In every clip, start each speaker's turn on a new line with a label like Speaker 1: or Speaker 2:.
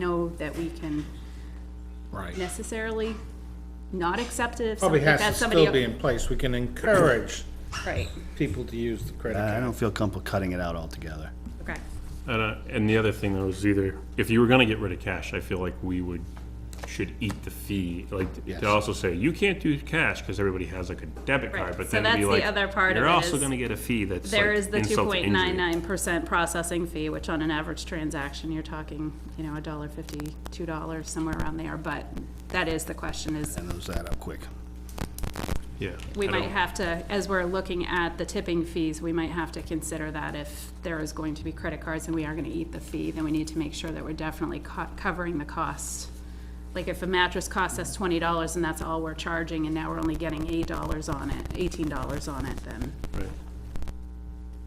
Speaker 1: code that we can
Speaker 2: Right.
Speaker 1: necessarily not accept it if some-
Speaker 2: Probably
Speaker 1: if
Speaker 2: has to
Speaker 1: that's somebody.
Speaker 2: still be in place. We can encourage
Speaker 1: Right,
Speaker 2: people to use the credit
Speaker 3: I
Speaker 2: card.
Speaker 3: don't feel comfortable cutting it out altogether.
Speaker 1: okay.
Speaker 4: And, uh, and the other thing though is either, if you were gonna get rid of cash, I feel like we would, should eat the fee, like,
Speaker 3: Yes.
Speaker 4: to also say, you can't do cash, cause everybody has like a debit
Speaker 1: Right,
Speaker 4: card, but
Speaker 1: so
Speaker 4: then it'd be
Speaker 1: that's the
Speaker 4: like.
Speaker 1: other part of
Speaker 4: You're
Speaker 1: it
Speaker 4: also
Speaker 1: is
Speaker 4: gonna get a fee that's
Speaker 1: There
Speaker 4: like
Speaker 1: is the two
Speaker 4: insult to
Speaker 1: point
Speaker 4: injury."
Speaker 1: nine nine percent processing fee, which on an average transaction, you're talking, you know, a dollar fifty, two dollars, somewhere around there, but that is the question is,
Speaker 3: And those add up quick.
Speaker 4: Yeah.
Speaker 1: we
Speaker 4: I
Speaker 1: might
Speaker 4: don't-
Speaker 1: have to, as we're looking at the tipping fees, we might have to consider that if there is going to be credit cards and we are gonna eat the fee, then we need to make sure that we're definitely co- covering the cost. Like if a mattress costs us twenty dollars and that's all we're charging and now we're only getting eight dollars on it, eighteen dollars on it, then.
Speaker 4: Right.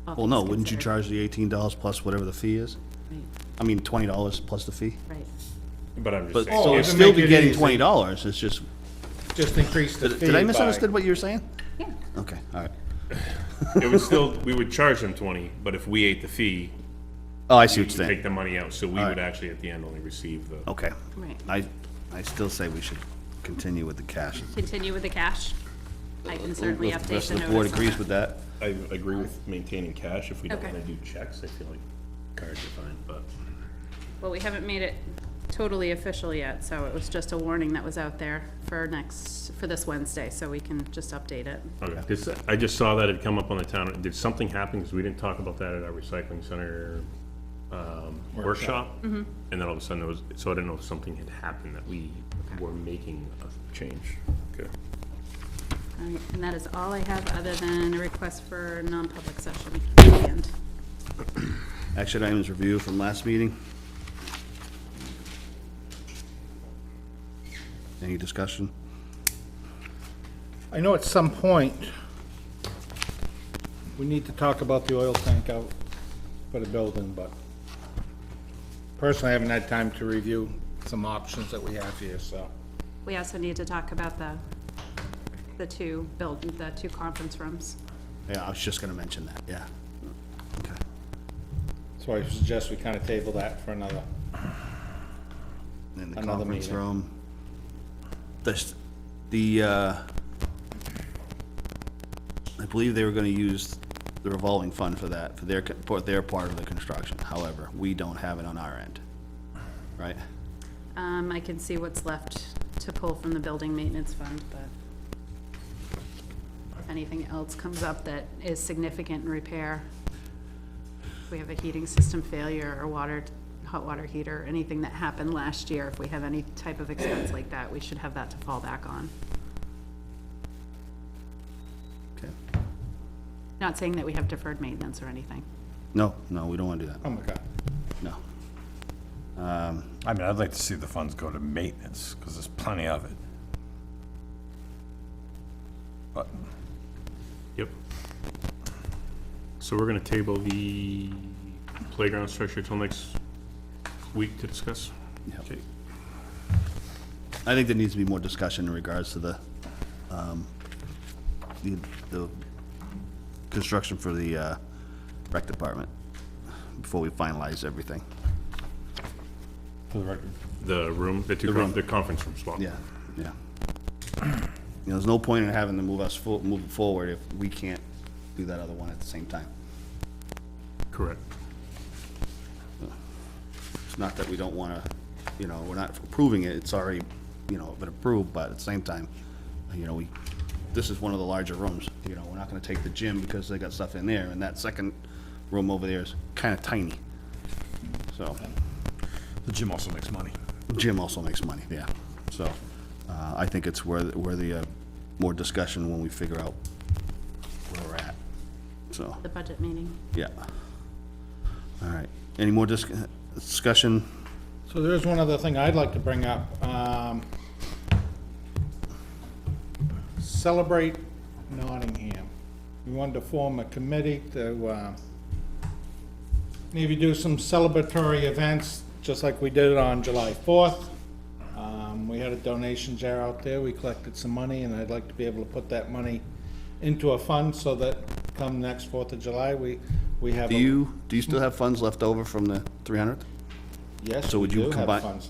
Speaker 1: all
Speaker 3: Well, no,
Speaker 1: things
Speaker 3: wouldn't you
Speaker 1: considered.
Speaker 3: charge the eighteen dollars plus whatever the fee is? I mean, twenty dollars plus the fee?
Speaker 1: Right,
Speaker 4: But I'm
Speaker 3: But,
Speaker 4: just saying,
Speaker 3: so
Speaker 2: Oh,
Speaker 3: it's
Speaker 2: to
Speaker 3: still
Speaker 2: make
Speaker 3: be
Speaker 2: it
Speaker 3: getting
Speaker 2: easy.
Speaker 3: twenty dollars, it's just,
Speaker 2: Just increase the fee
Speaker 3: did I
Speaker 2: by-
Speaker 3: misunderstand what you were saying?
Speaker 1: yeah,
Speaker 3: Okay, all right.
Speaker 4: it would still, we would charge them twenty, but if we ate the fee,
Speaker 3: Oh, I see
Speaker 4: you
Speaker 3: what you're
Speaker 4: take
Speaker 3: saying.
Speaker 4: the money out, so we would
Speaker 3: right.
Speaker 4: actually at the end only receive the.
Speaker 3: Okay.
Speaker 1: right.
Speaker 3: I, I still say we should continue with the cash.
Speaker 1: Continue with the cash. I can certainly update
Speaker 3: If
Speaker 1: the
Speaker 3: The
Speaker 1: notice
Speaker 3: rest of the board
Speaker 1: on
Speaker 3: agrees
Speaker 1: that.
Speaker 3: with that.
Speaker 4: I agree with maintaining cash, if we don't
Speaker 1: Okay.
Speaker 4: wanna do checks, I feel like cards are fine, but.
Speaker 1: Well, we haven't made it totally official yet, so it was just a warning that was out there for next, for this Wednesday, so we can just update it.
Speaker 4: Okay, 'cause I just saw that it come up on the town, did something happen, because we didn't talk about that at our recycling center, um, workshop? And then all of a sudden there was, so I didn't know if something had happened that we were making a change. Okay.
Speaker 1: All right, And that is all I have, other than a request for non-public session. at the end.
Speaker 3: Action items review from last meeting. Any discussion?
Speaker 2: I know at some point, we need to talk about the oil tank out for the building, but personally, I haven't had time to review some options that we have here, so.
Speaker 1: We also need to talk about the, the two build, the two conference rooms.
Speaker 3: Yeah, I was just gonna mention that, yeah. Okay.
Speaker 2: So I suggest we kind of table that for another.
Speaker 3: in the
Speaker 2: Another
Speaker 3: conference
Speaker 2: meeting.
Speaker 3: room. The, s- the, uh, I believe they were gonna use the revolving fund for that, for their, co- for their part of the construction. However, we don't have it on our end, right?
Speaker 1: Um, I can see what's left to pull from the building maintenance fund, but if anything else comes up that is significant in repair, if we have a heating system failure or water, hot water heater, anything that happened last year, if we have any type of expense like that, we should have that to fall back on.
Speaker 3: Okay.
Speaker 1: Not saying that we have deferred maintenance or anything.
Speaker 3: No, no, we don't wanna do
Speaker 2: Oh
Speaker 3: that,
Speaker 2: my God.
Speaker 3: no.
Speaker 5: I mean, I'd like to see the funds go to maintenance, because there's plenty of it. But,
Speaker 4: Yep. So we're gonna table the playground structure till next week to discuss?
Speaker 3: Yep.
Speaker 4: Okay.
Speaker 3: I think there needs to be more discussion in regards to the, um, the, the construction for the, uh, rec department before we finalize everything.
Speaker 5: for the record,
Speaker 4: The room, the two, con- the conference room swap?
Speaker 3: Yeah, yeah. You know, there's no point in having to move us, fo- move it forward if we can't do that other one at the same time.
Speaker 4: Correct.
Speaker 3: It's not that we don't wanna, you know, we're not approving it, it's already, you know, been approved, but at the same time, you know, we, this is one of the larger rooms, you know, we're not gonna take the gym because they got stuff in there, and that second room over there is kinda tiny. So,
Speaker 5: the gym also makes money.
Speaker 3: gym also makes money, yeah, so, uh, I think it's worth, worthy of more discussion when we figure out where we're at, so.
Speaker 1: The budget meeting.
Speaker 3: Yeah. All right. Any more dis- discussion?
Speaker 2: So there is one other thing I'd like to bring up. Um, Celebrate Nottingham. We wanted to form a committee to uh, maybe do some celebratory events, just like we did on July 4th. Um, We had a donation jar out there, we collected some money, and I'd like to be able to put that money into a fund so that come next 4th of July, we, we have.
Speaker 3: Do
Speaker 2: a-
Speaker 3: you, do you still have funds left over from the 300th?
Speaker 2: Yes,
Speaker 3: so
Speaker 2: we
Speaker 3: would you
Speaker 2: do have
Speaker 3: combine-
Speaker 2: funds